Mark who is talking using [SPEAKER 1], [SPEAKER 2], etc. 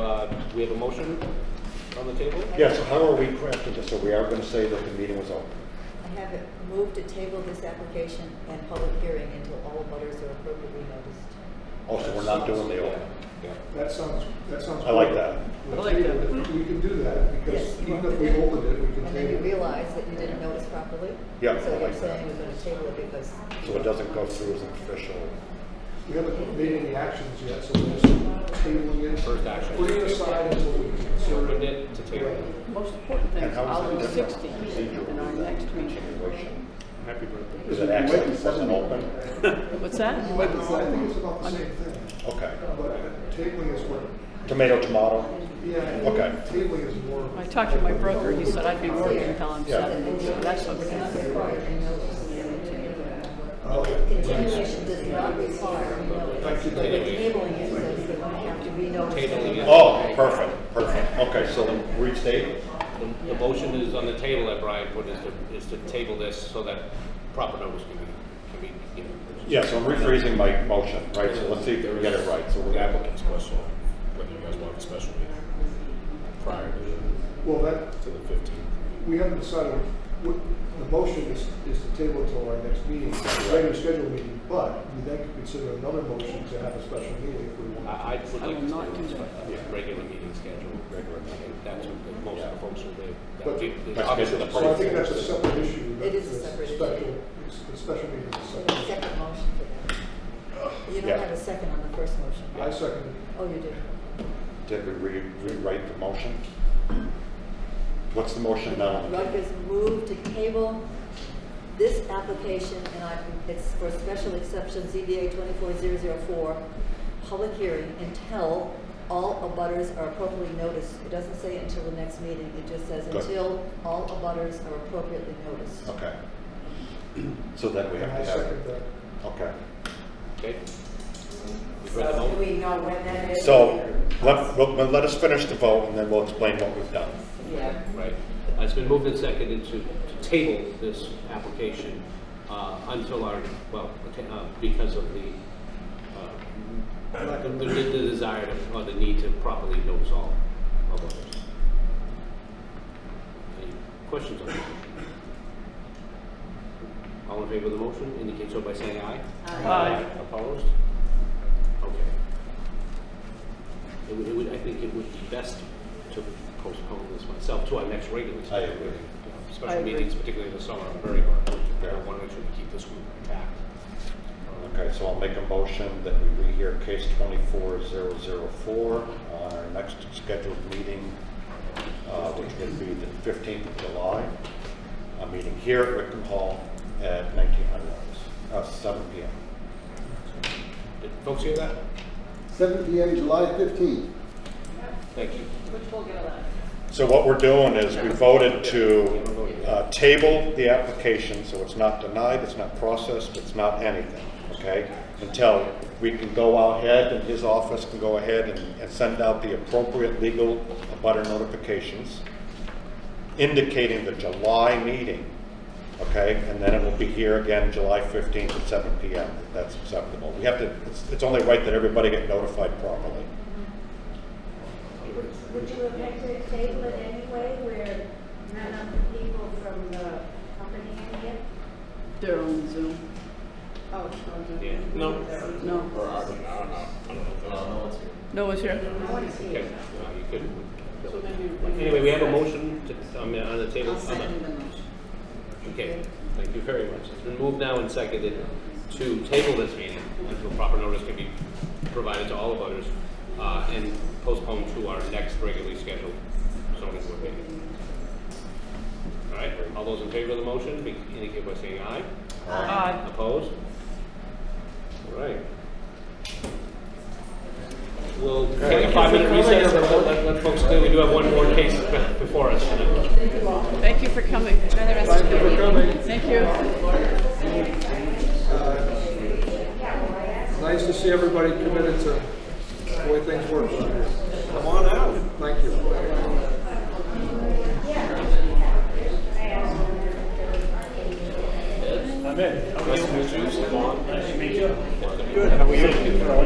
[SPEAKER 1] uh, we have a motion on the table?
[SPEAKER 2] Yeah, so how are we crafting this? So we are going to say that the meeting was open.
[SPEAKER 3] I have it moved to table this application and public hearing until all butters are appropriately noticed.
[SPEAKER 2] Also, we're not doing the open.
[SPEAKER 1] Yeah.
[SPEAKER 4] That sounds, that sounds.
[SPEAKER 2] I like
[SPEAKER 4] good.
[SPEAKER 2] that.
[SPEAKER 4] We'll
[SPEAKER 5] I like
[SPEAKER 4] table it. We can do that
[SPEAKER 3] Yes,
[SPEAKER 4] because
[SPEAKER 3] you
[SPEAKER 4] even
[SPEAKER 3] want
[SPEAKER 4] if we
[SPEAKER 3] to.
[SPEAKER 4] opened it, we can
[SPEAKER 3] And then you
[SPEAKER 4] table it.
[SPEAKER 3] realize that you didn't notice properly.
[SPEAKER 2] Yeah, I
[SPEAKER 3] So you're
[SPEAKER 2] like that.
[SPEAKER 3] saying we're gonna table it because.
[SPEAKER 2] So it doesn't go through as an official.
[SPEAKER 4] We haven't made any actions yet, so we're just tabling it.
[SPEAKER 1] First action.
[SPEAKER 4] Putting it aside until we consider
[SPEAKER 1] Opened
[SPEAKER 4] it.
[SPEAKER 1] it to table.
[SPEAKER 5] Most important thing
[SPEAKER 2] And
[SPEAKER 5] is
[SPEAKER 2] how is
[SPEAKER 5] August
[SPEAKER 2] that different?
[SPEAKER 5] 16th
[SPEAKER 2] Procedural
[SPEAKER 5] in our
[SPEAKER 2] in that
[SPEAKER 5] next meeting.
[SPEAKER 2] situation.
[SPEAKER 6] Happy birthday.
[SPEAKER 2] Is it actually, it wasn't open?
[SPEAKER 5] What's that?
[SPEAKER 4] But it's- I think it's about the same thing,
[SPEAKER 2] Okay.
[SPEAKER 4] but tabling is what,
[SPEAKER 2] Tomato, tomato?
[SPEAKER 4] yeah, I think
[SPEAKER 2] Okay.
[SPEAKER 4] tabling is more.
[SPEAKER 5] I talked to my broker, he said I'd be working until I'm
[SPEAKER 2] Yeah.
[SPEAKER 5] 70, so that's okay.
[SPEAKER 3] Continuation does not require a notice.
[SPEAKER 4] Thank you.
[SPEAKER 3] But we're tabling it, so it's going to have to be noticed.
[SPEAKER 1] Tabling it.
[SPEAKER 2] Oh, perfect, perfect. Okay, so restate?
[SPEAKER 1] The, the motion is on the table that Brian put, is to, is to table this so that proper notice can be, can be given.
[SPEAKER 2] Yeah, so I'm rephrasing my motion, right? So let's see if we get it right. So
[SPEAKER 7] The
[SPEAKER 2] we're going to
[SPEAKER 7] applicant's question, whether you guys want a special meeting prior to the,
[SPEAKER 4] Well, that,
[SPEAKER 7] to the fifteenth.
[SPEAKER 4] we haven't decided, what, the motion is, is to table it till our next meeting, regular scheduled meeting, but we then could consider another motion to have a special meeting if we want.
[SPEAKER 2] Ah,
[SPEAKER 1] I, I would
[SPEAKER 5] I
[SPEAKER 1] like
[SPEAKER 5] will
[SPEAKER 1] to
[SPEAKER 5] not do
[SPEAKER 1] stay
[SPEAKER 5] that.
[SPEAKER 1] with a regular meeting schedule, regular meeting, that's what the- most of the folks are there. That
[SPEAKER 4] But-
[SPEAKER 1] would be-
[SPEAKER 2] but
[SPEAKER 1] obviously
[SPEAKER 2] it's-
[SPEAKER 1] the
[SPEAKER 4] So I
[SPEAKER 1] first-
[SPEAKER 4] think that's a separate issue.
[SPEAKER 3] It is a
[SPEAKER 4] that's
[SPEAKER 3] separate issue.
[SPEAKER 4] special- it's- The special meeting is
[SPEAKER 3] So the
[SPEAKER 4] separate.
[SPEAKER 3] second motion for that. You
[SPEAKER 2] Yeah.
[SPEAKER 3] don't have a second on the first motion.
[SPEAKER 4] I second
[SPEAKER 3] Oh, you did.
[SPEAKER 2] Did we re- rewrite the motion? What's the motion now?
[SPEAKER 3] Rutgers moved to table this application, and I, it's for special exception ZBA 24004, public hearing until all abutters are appropriately noticed. It doesn't say until the next meeting, it just says
[SPEAKER 2] Good. Oh.
[SPEAKER 3] until all abutters are appropriately noticed.
[SPEAKER 2] Okay. So then we
[SPEAKER 4] it, and
[SPEAKER 2] have
[SPEAKER 4] I
[SPEAKER 2] to have,
[SPEAKER 4] second that.
[SPEAKER 2] okay.
[SPEAKER 1] Okay? We've read the mo-
[SPEAKER 3] we know when that
[SPEAKER 2] So let, let let us finish the vote and then we'll explain what we've done.
[SPEAKER 5] Yeah.
[SPEAKER 1] Right. Uh, It's been moved and seconded to to table this application uh, until our, well, okay, uh, because of the, uh, the the- the desire to- or the need to properly notice all of others. Any questions on that? All in favor of the motion, indicate so by saying aye.
[SPEAKER 5] Aye.
[SPEAKER 1] Opposed? Okay. It would, it would, I think it would be best to postpone this myself to our next regular.
[SPEAKER 2] I agree.
[SPEAKER 1] Yeah,
[SPEAKER 5] I
[SPEAKER 1] Special
[SPEAKER 5] agree.
[SPEAKER 1] meetings, particularly in the summer, are very hard.
[SPEAKER 2] Yeah.
[SPEAKER 1] I want to make sure we keep this group intact.
[SPEAKER 2] Okay, so I'll make a motion that we rehear case 24004 on uh, our next scheduled meeting, uh, which would be the 15th of July, a meeting here at Wickham Hall at 1900, uh, 7 PM.
[SPEAKER 1] Did folks hear that?
[SPEAKER 8] 7 PM, July 15th.
[SPEAKER 1] Thank you.
[SPEAKER 2] So what we're doing is we voted to uh, table the application, so it's not denied, it's not processed, it's not anything, okay? Until we can go out ahead and his office can go ahead and, and send out the appropriate legal abutter notifications indicating the July meeting, okay? And then it will be here again July 15th at 7 PM, if that's acceptable. We have to, it's, it's only right that everybody get notified properly.
[SPEAKER 9] Would you have had to table it anyway, where none of the people from the company in here?
[SPEAKER 5] They're on Zoom.
[SPEAKER 9] Oh, sure.
[SPEAKER 1] Yeah. No.
[SPEAKER 5] No,
[SPEAKER 7] Or, I don't know, I don't know, I don't know.
[SPEAKER 5] no one's here.
[SPEAKER 9] No one's
[SPEAKER 1] Okay,
[SPEAKER 9] here.
[SPEAKER 1] no, you
[SPEAKER 5] So
[SPEAKER 1] couldn't.
[SPEAKER 5] maybe-
[SPEAKER 1] Anyway, we have a motion to, um, on the table.
[SPEAKER 3] I'll second the motion.
[SPEAKER 1] Okay, thank you very much. It's been moved now and seconded to table this meeting until proper notice can be provided to all of others uh, and postpone to our next regularly scheduled zoning board meeting. All right, all those in favor of the motion, be- indicate by saying aye.
[SPEAKER 5] Aye.
[SPEAKER 1] Opposed? All right. We'll take a five-minute recess, but let- let let folks know we do have one more case be- before us tonight.
[SPEAKER 5] Thank you for coming. Enjoy the rest of your
[SPEAKER 4] for
[SPEAKER 5] evening.
[SPEAKER 4] coming.
[SPEAKER 5] Thank you.
[SPEAKER 4] Uh, Nice to see everybody committed to the way things work. Come on out. Thank you.
[SPEAKER 6] I'm in. Nice to meet you. Nice to meet you.